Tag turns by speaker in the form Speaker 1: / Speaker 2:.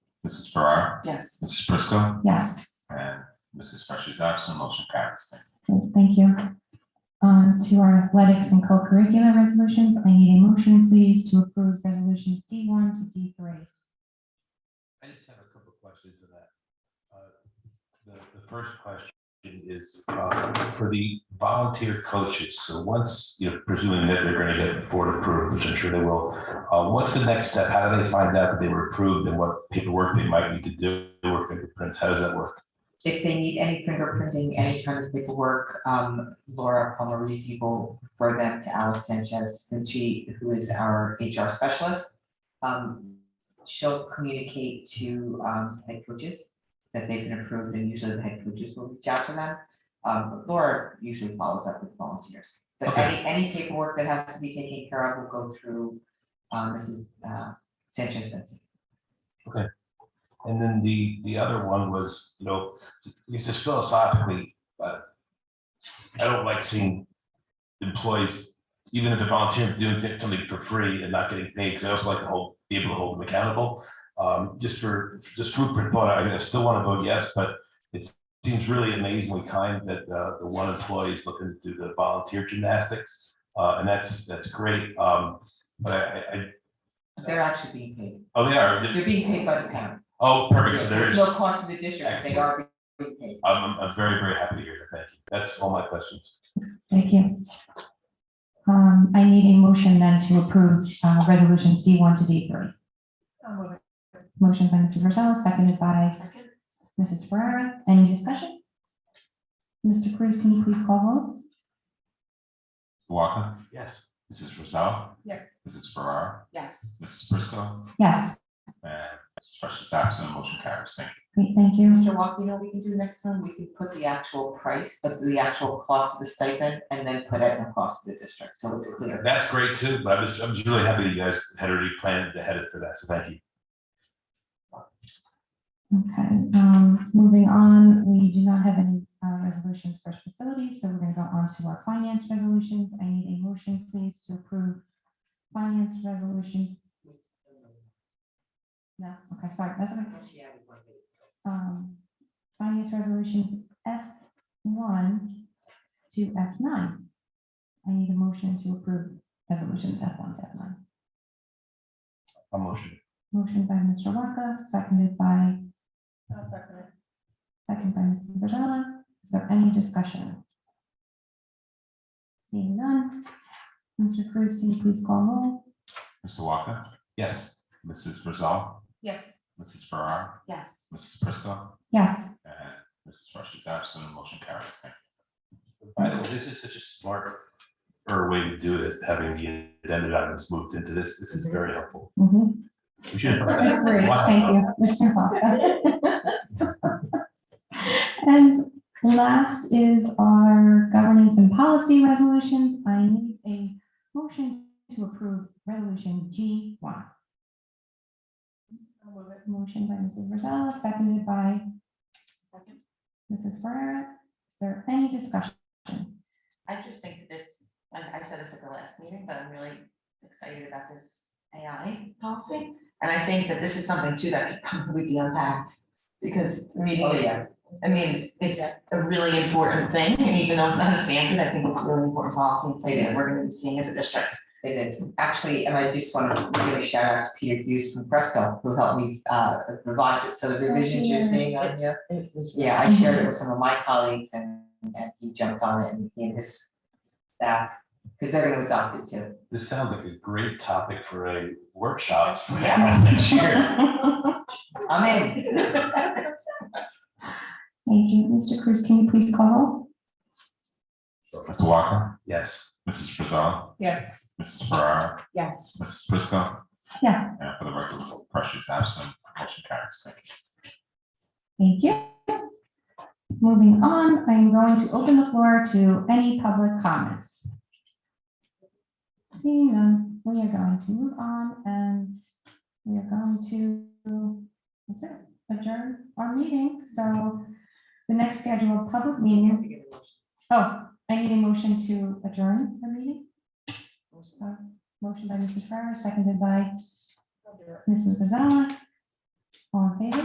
Speaker 1: Mrs. Farrar,
Speaker 2: Yes.
Speaker 1: Mrs. Prisco,
Speaker 3: Yes,
Speaker 1: and Mrs. Fresh is absent, motion carries.
Speaker 3: thank you. Um, to our athletics and co-curricular resolutions, I need a motion, please, to approve resolutions D one to D three.
Speaker 4: I just have a couple of questions on that. Uh, The, the first question is uh, for the volunteer coaches. So once, you know, presuming that they're going to get board approved, which I'm sure they will, uh, what's the next step? How do they find out that they were approved and what paperwork they might need to do or fingerprints? How does that work?
Speaker 2: If they need any fingerprinting, any kind of paperwork, um, Laura Palmarisi will refer them to Alice Sanchez, and she, who is our HR specialist. Um, she'll communicate to, um, head coaches that they've been approved, and usually the head coaches will reach out to them. Um, Laura usually follows up with volunteers, but
Speaker 4: Okay.
Speaker 2: any, any paperwork that has to be taken care of will go through, um, Mrs. uh, Sanchez Vincent.
Speaker 4: And then the, the other one was, you know, it's just philosophically, but I don't like seeing employees, even if they're volunteering, doing something for free and not getting paid, because I also like to hold, be able to hold them accountable. Um, just for, just food for thought, I I still want to vote yes, but it seems really amazingly kind that uh, the one employee is looking to do the volunteer gymnastics. Uh, and that's, that's great. Um, but I, I- I,
Speaker 2: They're actually being paid.
Speaker 4: oh, they
Speaker 2: They're
Speaker 4: are,
Speaker 2: being paid by the parent.
Speaker 4: oh, perfect, so there
Speaker 2: There's
Speaker 4: is.
Speaker 2: no cost to the district. They are being paid.
Speaker 4: I'm, I'm very, very happy to hear that. Thank you. That's all my questions.
Speaker 3: Thank you. Um, I need a motion then to approve, uh, resolutions D one to D three. Motion by Mrs. Rosella, seconded by Mrs. Ferrara. Any discussion? Mr. Cruz, can you please call roll?
Speaker 1: Mr. Walker,
Speaker 4: Yes.
Speaker 1: Mrs. Rosell,
Speaker 2: Yes.
Speaker 1: Mrs. Farrar,
Speaker 2: Yes.
Speaker 1: Mrs. Prisco,
Speaker 3: Yes,
Speaker 1: and Mrs. Fresh is absent, motion carries. Thank you.
Speaker 3: great, thank you.
Speaker 2: Mr. Walk, you know, what we can do next time, we can put the actual price, uh, the actual cost of the stipend and then put it in the cost of the district. So it's clear.
Speaker 4: That's great too, but I'm just, I'm just really happy you guys had already planned ahead for that. So thank you.
Speaker 3: Okay, um, moving on, we do not have any, uh, resolutions for facilities, so we're gonna go on to our finance resolutions. I need a motion, please, to approve finance resolution. No, okay, sorry, that's okay. Um, finance resolutions F one to F nine. I need a motion to approve resolutions F one to F nine.
Speaker 4: A motion.
Speaker 3: Motion by Mr. Walker, seconded by Second by Mrs. Virzella. Is there any discussion? Seeing none. Mr. Cruz, can you please call roll?
Speaker 1: Mr. Walker,
Speaker 4: Yes.
Speaker 1: Mrs. Rosell,
Speaker 2: Yes.
Speaker 1: Mrs. Farrar,
Speaker 2: Yes.
Speaker 1: Mrs. Prisco,
Speaker 3: Yes,
Speaker 1: and Mrs. Fresh is absent, motion carries. Thank
Speaker 4: By the way, this is such a smart er way to do this, having the addendum items moved into this. This is very helpful.
Speaker 3: mhm.
Speaker 4: We should have done that.
Speaker 3: Great,
Speaker 4: Wow.
Speaker 3: thank you, Mr. Vaca. And last is our governance and policy resolutions. I need a motion to approve resolution G one. Motion by Mrs. Virzella, seconded by
Speaker 5: Second.
Speaker 3: Mrs. Ferrera. Is there any discussion?
Speaker 5: I just think that this, I I said this at the last meeting, but I'm really excited about this AI policy. And I think that this is something too that could probably be unpacked because reading
Speaker 2: Oh,
Speaker 5: it,
Speaker 2: yeah.
Speaker 5: I mean, it's a really important thing. And even though it's not a standard, I think it's a really important policy and something
Speaker 2: It is.
Speaker 5: that we're going to be seeing as a district.
Speaker 2: It is. Actually, and I just want to give a shout out to Peter Hughes from Presto who helped me uh, revise it. So the revisions you're seeing on here. Yeah, I shared it with some of my colleagues and, and he jumped on it and he and his staff, because they're gonna adopt it too.
Speaker 4: This sounds like a great topic for a workshop.
Speaker 5: Yeah.
Speaker 4: Next year.
Speaker 2: I'm in.
Speaker 3: Thank you. Mr. Cruz, can you please call roll?
Speaker 1: you. Mr. Walker,
Speaker 4: Yes.
Speaker 1: Mrs. Rosell,
Speaker 5: Yes.
Speaker 1: Mrs. Farrar,
Speaker 5: Yes.
Speaker 1: Mrs. Prisco,
Speaker 3: Yes,
Speaker 1: and for the record, Fresh is absent, motion carries. Thank you.
Speaker 3: thank you. Moving on, I am going to open the floor to any public comments. Seeing none, we are going to move on and we are going to that's it, adjourn our meeting. So the next scheduled public meeting, oh, I need a motion to adjourn the meeting. Uh, Motion by Mrs. Farrar, seconded by Mrs. Rosella. All in favor?